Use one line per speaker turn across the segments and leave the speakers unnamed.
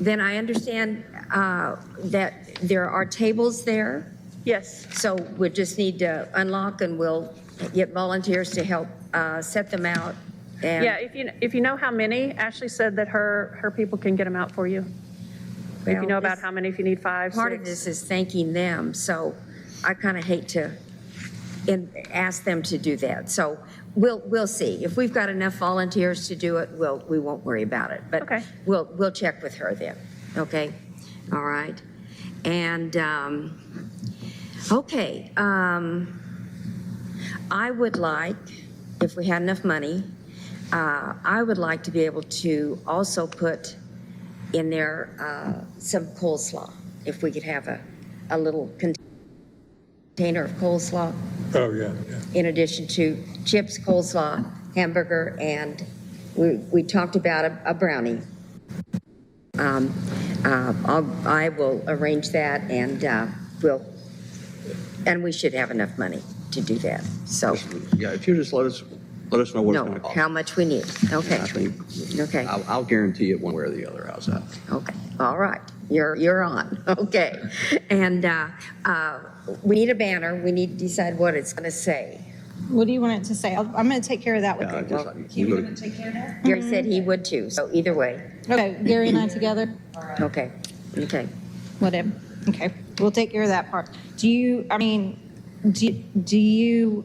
Then I understand uh, that there are tables there,
Yes,
so we just need to unlock and we'll get volunteers to help uh, set them out. and-
yeah, if you, if you know how many, Ashley said that her, her people can get them out for you. If you
Well,
know about
this-
how many, if you need five,
Part of
six.
this is thanking them, so I kind of hate to in- ask them to do that. So we'll, we'll see. If we've got enough volunteers to do it, we'll, we won't worry about it.
Okay.
But we'll, we'll check with her then, okay? All right. And, um, okay, um, I would like, if we had enough money, uh, I would like to be able to also put in there uh, some coleslaw, if we could have a, a little container of coleslaw,
Oh, yeah, yeah.
in addition to chips, coleslaw, hamburger, and we, we talked about a a brownie. Um, uh, I'll- I will arrange that, and uh, we'll, and we should have enough money to do that, so,
Yeah, if you just let us, let us know what it's
no,
going to cost.
how much we need, okay,
I think-
okay.
I'll, I'll guarantee it one way or the other, how's that?
Okay, all right, you're, you're on, okay. And uh, uh, we need a banner, we need to decide what it's going to say.
What do you want it to say? I'll- I'm going to take care of that with
Yeah, I
you.
just- you go-
Gary said he would too, so either way,
Okay, Gary and I together,
okay, okay.
whatever. Okay, we'll take care of that part. Do you, I mean, do, do you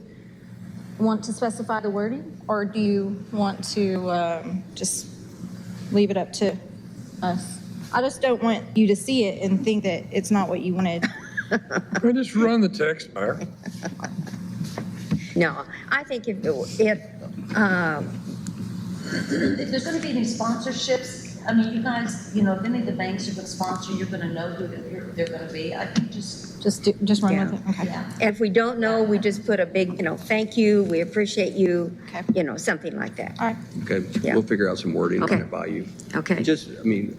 want to specify the wording? Or do you want to um, just leave it up to us? I just don't want you to see it and think that it's not what you wanted.
Well, just run the text, Mayor.
No, I think if, it- it, um,
If there's gonna be any sponsorships, I mean, you guys, you know, if any of the banks are gonna sponsor, you're gonna know who they're, they're gonna be. I think just,
Just, do- just run with it. Okay.
yeah.
if we don't know, we just put a big, you know, thank you, we appreciate you,
Okay.
you know, something like that,
All right.
Okay,
Yeah.
we'll figure out some wording on
Okay.
it by you.
okay?
Just, I mean,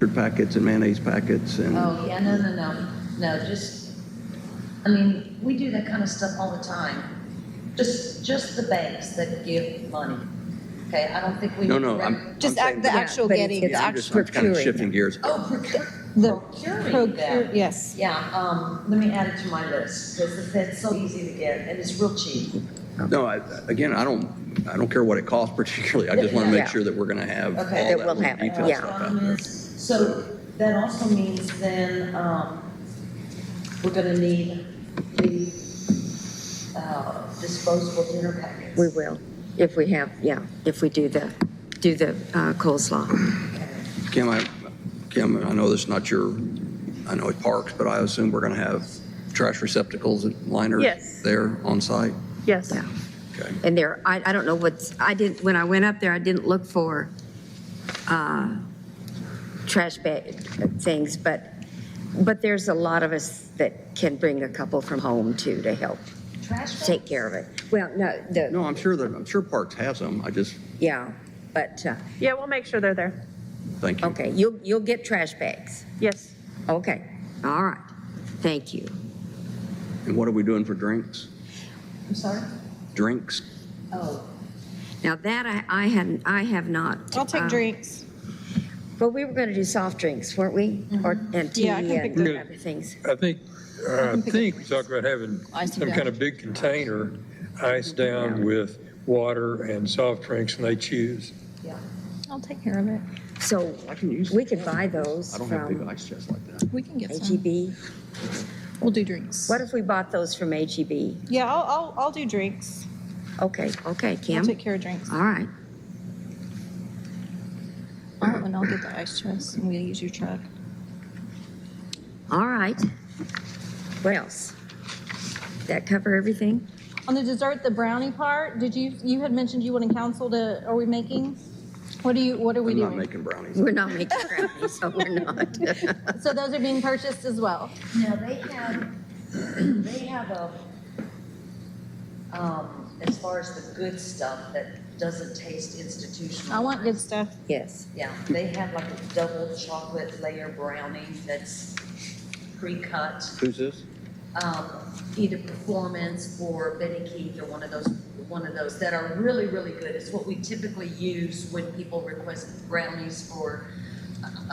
mustard packets and mayonnaise packets and,
Oh, yeah, no, no, no, no, just, I mean, we do that kind of stuff all the time. Just, just the banks that give money, okay? I don't think we.
no,
need
no,
to
I'm.
Just
I'm
act-
saying-
the actual
but it's-
getting,
it's
the
Yeah, I'm
actual.
just, I'm kind of
procuring.
shifting gears.
Oh, procure,
the
procuring
procure-
them.
Yes.
Yeah, um, let me add it to my list, because that's so easy to get, and it's real cheap.
No, I, again, I don't, I don't care what it costs particularly, I just want to
Yeah.
make sure that we're going to have all
Okay.
that
That
we'll
little
have it,
detail
yeah.
stuff out there.
So that also means then, um, we're gonna need the, uh, disposable dinner packets.
We will, if we have, yeah, if we do the, do the uh, coleslaw.
Kim, I, Kim, I know this is not your, I know it's parks, but I assume we're going to have trash receptacles and liners
Yes.
there on site?
Yes,
Yeah.
Okay.
And there, I, I don't know what's, I didn't, when I went up there, I didn't look for uh, trash bag uh, things, but, but there's a lot of us that can bring a couple from home too to help
Trash bags?
take care of it. Well, no, the,
No, I'm sure that, I'm sure Parks has them. I just,
yeah, but, uh,
yeah, we'll make sure they're there.
thank you.
okay, you'll, you'll get trash bags.
Yes.
Okay, all right, thank you.
And what are we doing for drinks?
I'm sorry?
Drinks?
Oh,
Now that I, I hadn't, I have not.
I'll take
uh,
drinks.
Well, we were going to do soft drinks, weren't we? Or, and tea
Mm-hmm. Yeah, I can pick
and
those
up.
other things.
I think, I
can pick up
think we talked about having
Ice
some
down.
kind of big container iced down with water and soft drinks, and they choose.
yeah.
I'll take care of it.
So
I can use.
we could buy those
I don't have big
from
ice chests like that.
We can get some.
HEB.
We'll do drinks.
What if we bought those from HEB?
Yeah, I'll, I'll, I'll do drinks.
Okay, okay,
I'll
Kim.
take care of drinks.
All right,
All right, and I'll get the ice chest and we'll use your truck.
all right. What else? That cover everything?
On the dessert, the brownie part, did you, you had mentioned you wanted council to, are we making? What do you, what are we
I'm not
doing?
making brownies.
We're not making brownies, so we're not.
So those are being purchased as well?
Now, they have, they have a, um, as far as the good stuff that doesn't taste institutional.
I want good stuff.
Yes.
Yeah, they have like a double chocolate layer brownie that's pre-cut.
Who's this?
um, either Performance or Benny Keith or one of those, one of those that are really, really good. It's what we typically use when people request brownies for uh,